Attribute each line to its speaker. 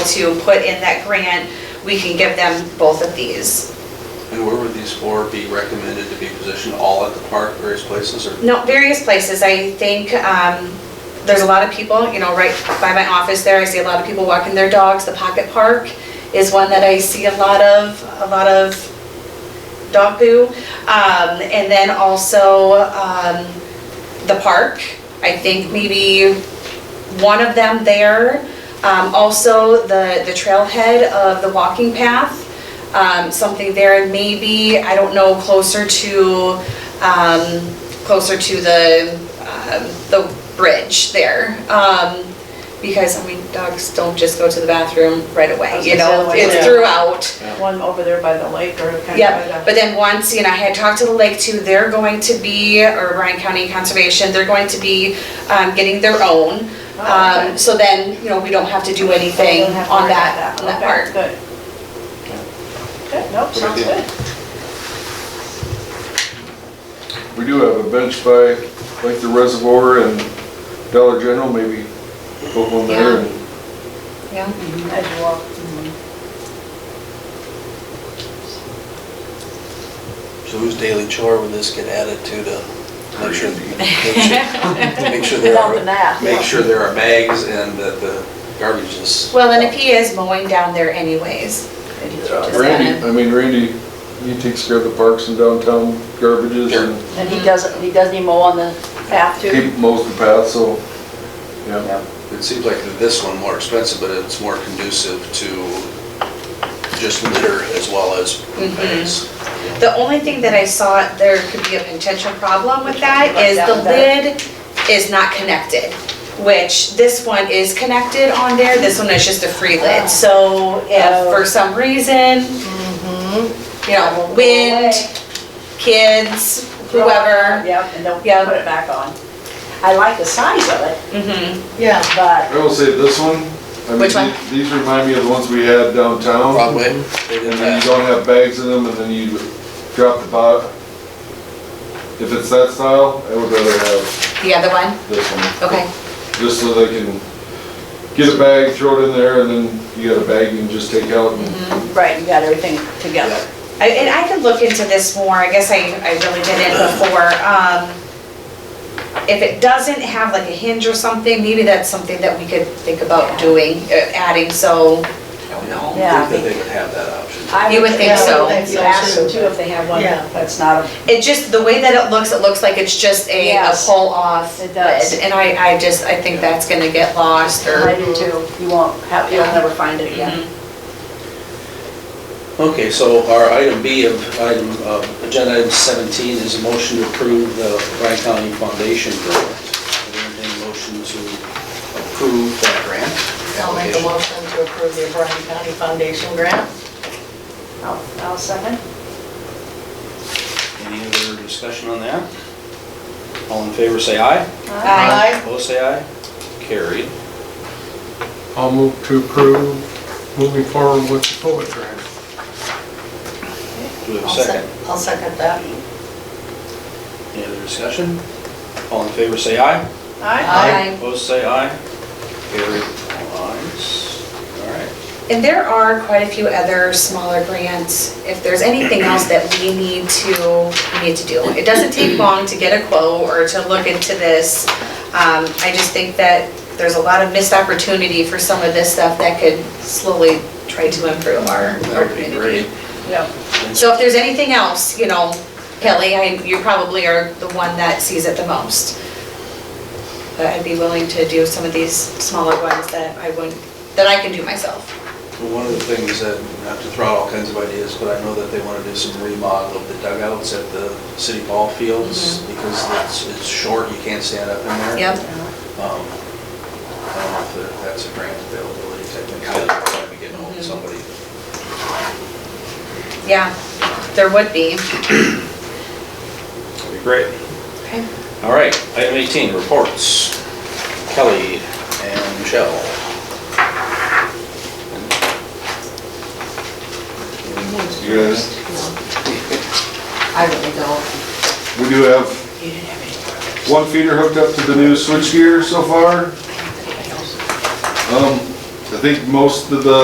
Speaker 1: to put in that grant, we can give them both of these.
Speaker 2: And where would these four be recommended to be positioned, all at the park, various places, or?
Speaker 1: No, various places, I think, um, there's a lot of people, you know, right by my office there, I see a lot of people walking their dogs. The Pocket Park is one that I see a lot of, a lot of dog poo. Um, and then also, um, the park, I think maybe one of them there. Um, also, the, the trailhead of the walking path, um, something there, and maybe, I don't know, closer to, um, closer to the, um, the bridge there. Um, because, I mean, dogs don't just go to the bathroom right
Speaker 3: I
Speaker 1: away,
Speaker 3: was
Speaker 1: you
Speaker 3: gonna say,
Speaker 1: know,
Speaker 3: like,
Speaker 1: it's
Speaker 3: yeah.
Speaker 1: throughout.
Speaker 3: One over there by the lake or kind of. by
Speaker 1: Yep,
Speaker 3: the-
Speaker 1: but then once, you know, I had talked to the lake too, they're going to be, or Bryan County Conservation, they're going to be, um, getting their own.
Speaker 3: Oh, okay.
Speaker 1: Um, so then, you know, we don't have to do anything
Speaker 3: Don't have to
Speaker 1: on
Speaker 3: worry about
Speaker 1: that, on that
Speaker 3: Okay,
Speaker 1: part.
Speaker 3: Good. Good, nope, sounds
Speaker 2: deal.
Speaker 3: good.
Speaker 4: We do have a bench by, like the reservoir and Dollar General, maybe put one there and
Speaker 1: Yeah,
Speaker 3: As you walk.
Speaker 2: So whose daily chore would this get added to to make sure, make sure- make sure there
Speaker 3: Without the
Speaker 2: are,
Speaker 3: math.
Speaker 2: make sure there are bags and that the garbage is.
Speaker 1: well, and if he is mowing down there anyways,
Speaker 3: Maybe throw it.
Speaker 4: uh, Randy, I mean, Randy, he takes care of the parks and downtown garbages and
Speaker 5: And he doesn't, he doesn't even mow on the
Speaker 3: Path to.
Speaker 4: he mows the path, so, yeah.
Speaker 2: It seems like this one more expensive, but it's more conducive to just litter as well as poop bags.
Speaker 1: The only thing that I saw, there could be a potential problem with that, is the lid is not connected, which this one is connected on there, this one is just a free lid. So if for some reason, you know, wind, kids, whoever,
Speaker 3: Yep, and don't
Speaker 1: Yeah.
Speaker 3: put it back on. I like the size of it,
Speaker 1: mhm,
Speaker 5: Yeah.
Speaker 3: but
Speaker 4: I will say this one, I mean,
Speaker 1: Which one?
Speaker 4: these- these remind me of the ones we had downtown.
Speaker 2: Broadway, they
Speaker 4: And
Speaker 2: did
Speaker 4: then you
Speaker 2: that.
Speaker 4: don't have bags in them and then you drop the bot. If it's that style, I would rather have
Speaker 1: the other one,
Speaker 4: this one.
Speaker 1: okay.
Speaker 4: just so they can get a bag, throw it in there, and then you got a bag you can just take out and
Speaker 3: Right, you got everything together.
Speaker 2: Yeah.
Speaker 1: I- And I could look into this more, I guess I, I really didn't before. Um, If it doesn't have like a hinge or something, maybe that's something that we could think about doing, uh, adding, so, I don't know.
Speaker 3: Yeah, I
Speaker 2: I think that they would have that option.
Speaker 3: I
Speaker 1: You would think
Speaker 3: yeah,
Speaker 1: so.
Speaker 3: You ask them too if they have one
Speaker 5: Yeah.
Speaker 3: that's not, a-
Speaker 1: It just, the way that it looks, it looks like it's just a, a
Speaker 3: Yes.
Speaker 1: pull-off
Speaker 3: It does.
Speaker 1: lid. And I, I just, I think that's gonna get lost
Speaker 3: I
Speaker 1: or,
Speaker 3: do too. You won't have, you'll
Speaker 1: Yeah.
Speaker 3: never find it again.
Speaker 2: Okay, so our item B of, item, uh, agenda item 17 is a motion to approve the Bryan County Foundation grant. Is there any motion to approve that grant
Speaker 5: I'll make a
Speaker 2: application?
Speaker 5: motion to approve the Bryan County Foundation grant.
Speaker 3: I'll, I'll second.
Speaker 2: Any other discussion on that? All in favor, say aye.
Speaker 1: Aye.
Speaker 2: Opposed, say aye. Carried.
Speaker 6: I'll move to approve moving forward with the poet grant.
Speaker 2: Do we have a
Speaker 5: I'll
Speaker 2: second?
Speaker 5: sec- I'll second that.
Speaker 2: Any other discussion? All in favor, say aye.
Speaker 3: Aye.
Speaker 2: Opposed, say aye. Carried. All ayes. All right.
Speaker 1: And there are quite a few other smaller grants, if there's anything else that we need to, we need to do. It doesn't take long to get a quote or to look into this. Um, I just think that there's a lot of missed opportunity for some of this stuff that could slowly try to improve our our
Speaker 2: That would be
Speaker 1: community.
Speaker 2: great.
Speaker 3: Yep.
Speaker 1: So if there's anything else, you know, Kelly, I- you probably are the one that sees it the most. But I'd be willing to do some of these smaller ones that I wouldn't, that I can do myself.
Speaker 2: Well, One of the things that, not to throw out all kinds of ideas, but I know that they want to do some remodel of the dugouts at the city ball fields because it's, it's short, you can't stand up in there.
Speaker 1: Yep.
Speaker 2: Um, I don't know if there- that's a grant availability technically, I'd probably be getting hold of somebody.
Speaker 1: Yeah, there would be.
Speaker 2: That'd be great. All right, item 18, reports. Kelly and Michelle.
Speaker 4: you guys.
Speaker 5: I really don't.
Speaker 4: We do have one feeder hooked up to the new switchgear so far. Um, I think most of the